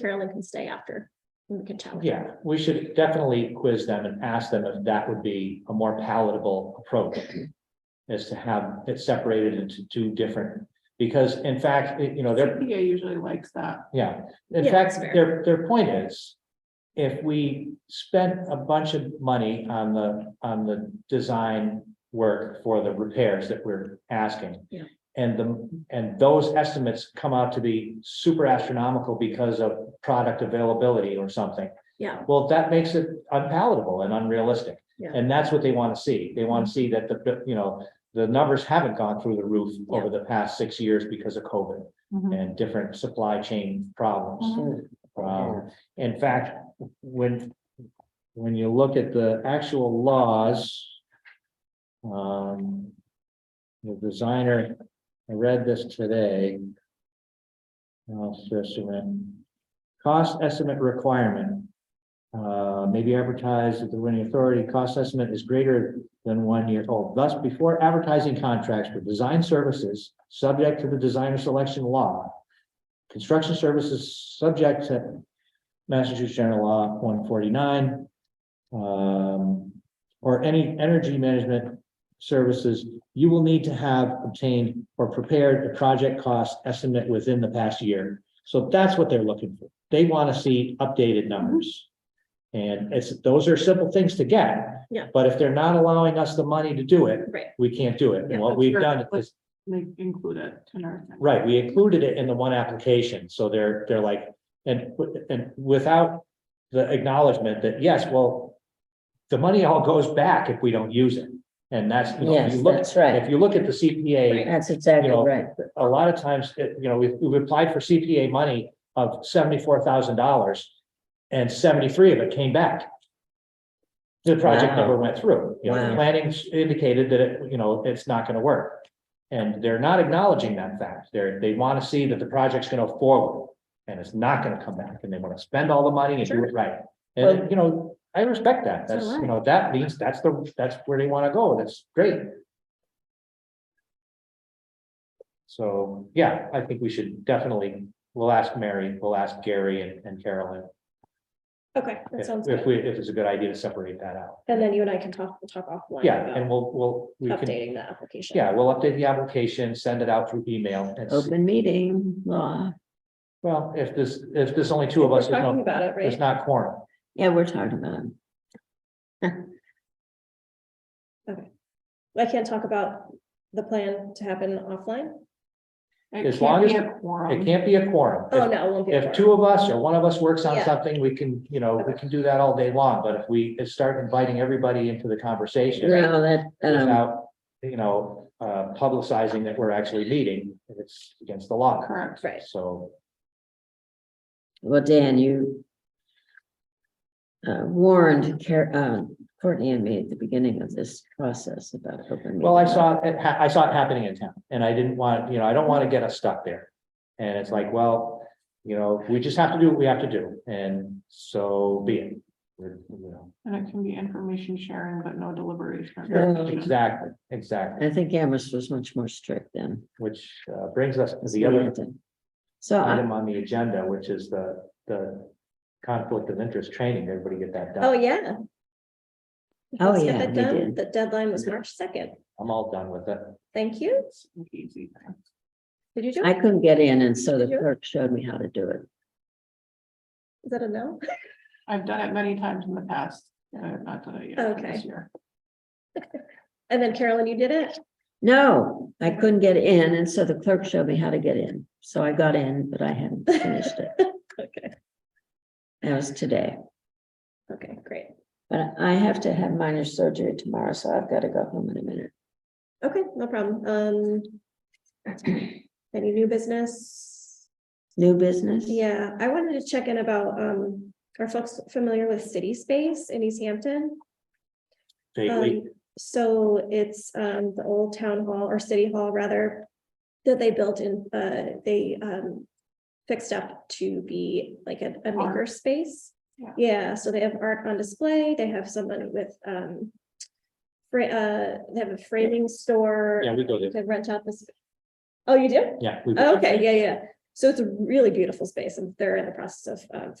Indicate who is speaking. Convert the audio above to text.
Speaker 1: Carolyn can stay after. and We can chat with her.
Speaker 2: Yeah, we should definitely quiz them and ask them if that would be a more palatable approach. Is to have it separated into two different, because in fact, it- you know, they're,
Speaker 3: CPA usually likes that.
Speaker 2: yeah, in
Speaker 1: Yeah,
Speaker 2: fact,
Speaker 1: that's fair.
Speaker 2: their, their point is. If we spent a bunch of money on the, on the design work for the repairs that we're asking.
Speaker 1: Yeah.
Speaker 2: And the, and those estimates come out to be super astronomical because of product availability or something.
Speaker 1: Yeah,
Speaker 2: Well, that makes it unpalatable and unrealistic.
Speaker 1: Yeah.
Speaker 2: And that's what they want to see. They want to see that the, you know, the numbers haven't gone through the roof over the past six years because of COVID
Speaker 4: Mm-hmm.
Speaker 2: and different supply chain problems. Um, in fact, when, when you look at the actual laws, um, the designer, I read this today. Well, just a minute. Cost estimate requirement. Uh, maybe advertised at the winning authority, cost estimate is greater than one year old. Thus, before advertising contracts for design services, subject to the designer selection law. Construction services subject to Massachusetts General Law one forty-nine. Um, or any energy management services, you will need to have obtained or prepared a project cost estimate within the past year. So that's what they're looking for. They want to see updated numbers. And it's, those are simple things to get.
Speaker 1: Yeah.
Speaker 2: But if they're not allowing us the money to do it,
Speaker 1: right.
Speaker 2: we can't do it.
Speaker 1: Yeah.
Speaker 2: And what we've done is,
Speaker 3: They include it in our.
Speaker 2: right, we included it in the one application, so they're, they're like, and, and without the acknowledgement that, yes, well, the money all goes back if we don't use it. And that's, you know, if you
Speaker 4: Yes,
Speaker 2: look,
Speaker 4: that's right.
Speaker 2: if you look at the CPA,
Speaker 4: That's exactly
Speaker 2: you know,
Speaker 4: right.
Speaker 2: a lot of times, it- you know, we've, we've applied for CPA money of seventy-four thousand dollars and seventy-three of it came back. The project
Speaker 4: Wow.
Speaker 2: never went through. You know,
Speaker 4: Wow.
Speaker 2: planning indicated that it, you know, it's not gonna work. And they're not acknowledging that fact. They're, they wanna see that the project's gonna forward and it's not gonna come back and they wanna spend all the money and do
Speaker 1: Sure.
Speaker 2: it right. And, you know, I respect that.
Speaker 1: It's all
Speaker 2: That's, you know, that means that's the, that's where they wanna go. That's great. So, yeah, I think we should definitely, we'll ask Mary, we'll ask Gary and- and Carolyn.
Speaker 1: Okay, that
Speaker 2: If
Speaker 1: sounds
Speaker 2: if
Speaker 1: good.
Speaker 2: we, if it's a good idea to separate that out.
Speaker 1: And then you and I can talk, we'll talk offline.
Speaker 2: Yeah,
Speaker 1: about
Speaker 2: and we'll, we'll, we can,
Speaker 1: Updating the application.
Speaker 2: yeah, we'll update the application, send it out through email. and see-
Speaker 4: Open meeting law.
Speaker 2: Well, if there's, if there's only two of
Speaker 1: We're
Speaker 2: us, there's
Speaker 1: talking
Speaker 2: no,
Speaker 1: about it,
Speaker 2: there's
Speaker 1: right?
Speaker 2: not quorum.
Speaker 4: Yeah, we're talking about it.
Speaker 1: I can't talk about the plan to happen offline.
Speaker 3: It
Speaker 2: As
Speaker 3: can't
Speaker 2: long as-
Speaker 3: be a quorum.
Speaker 2: It can't be a quorum.
Speaker 1: Oh,
Speaker 2: If-
Speaker 1: no, it won't be. a
Speaker 2: If
Speaker 1: quorum.
Speaker 2: two of us or one of us works on
Speaker 1: Yeah.
Speaker 2: something, we can, you know, we can do that all day long, but if we start inviting everybody into the conversation.
Speaker 4: Well, that, um,
Speaker 2: without, you know, uh, publicizing that we're actually meeting, it's against the law.
Speaker 3: Correct.
Speaker 1: Right.
Speaker 2: So,
Speaker 4: well, Dan, you uh, warned Car- uh, Courtney and me at the beginning of this process about open.
Speaker 2: well, I
Speaker 4: meeting law.
Speaker 2: saw it, ha- I saw it happening in town and I didn't want, you know, I don't want to get us stuck there. And it's like, well, you know, we just have to do what we have to do and so be it. We're- you know,
Speaker 3: And it can be information sharing, but no deliberation.
Speaker 4: Sure.
Speaker 2: Exactly, exactly,
Speaker 4: I think Amherst was much more strict then.
Speaker 2: which uh, brings us to the other
Speaker 4: So I,
Speaker 2: item on the agenda, which is the, the conflict of interest training. Everybody get that
Speaker 1: Oh,
Speaker 2: done.
Speaker 1: yeah.
Speaker 4: Oh,
Speaker 1: Let's get
Speaker 4: yeah,
Speaker 1: that
Speaker 4: we
Speaker 1: done.
Speaker 4: did.
Speaker 1: The deadline was March second.
Speaker 2: I'm all done with it.
Speaker 1: Thank you.
Speaker 3: Easy.
Speaker 1: Did you do?
Speaker 4: I
Speaker 1: it?
Speaker 4: couldn't get in and so the
Speaker 1: Did you?
Speaker 4: clerk showed me how to do it.
Speaker 1: Is that a no?
Speaker 3: I've done it many times in the past. but I've not done it yet
Speaker 1: Okay.
Speaker 3: this year.
Speaker 1: And then Carolyn, you did it?
Speaker 4: No, I couldn't get in and so the clerk showed me how to get in. So I got in, but I hadn't finished it.
Speaker 1: Okay,
Speaker 4: That was today.
Speaker 1: okay, great.
Speaker 4: But I have to have minor surgery tomorrow, so I've got to go home in a minute.
Speaker 1: Okay, no problem. Um. Any new business?
Speaker 4: New business?
Speaker 1: Yeah, I wanted to check in about, um, are folks familiar with City Space in East Hampton?
Speaker 2: Vaguely.
Speaker 1: Um, So it's, um, the old town hall or city hall rather, that they built in, uh, they, um, fixed up to be like a, a
Speaker 3: Art.
Speaker 1: maker space.
Speaker 3: Yeah.
Speaker 1: Yeah, so they have art on display. They have someone with, um, fra- uh, they have a framing store
Speaker 2: Yeah, we go there.
Speaker 1: to rent out this. Oh, you do?
Speaker 2: Yeah. we-
Speaker 1: Okay, yeah, yeah. So it's a really beautiful space and they're in the process of, of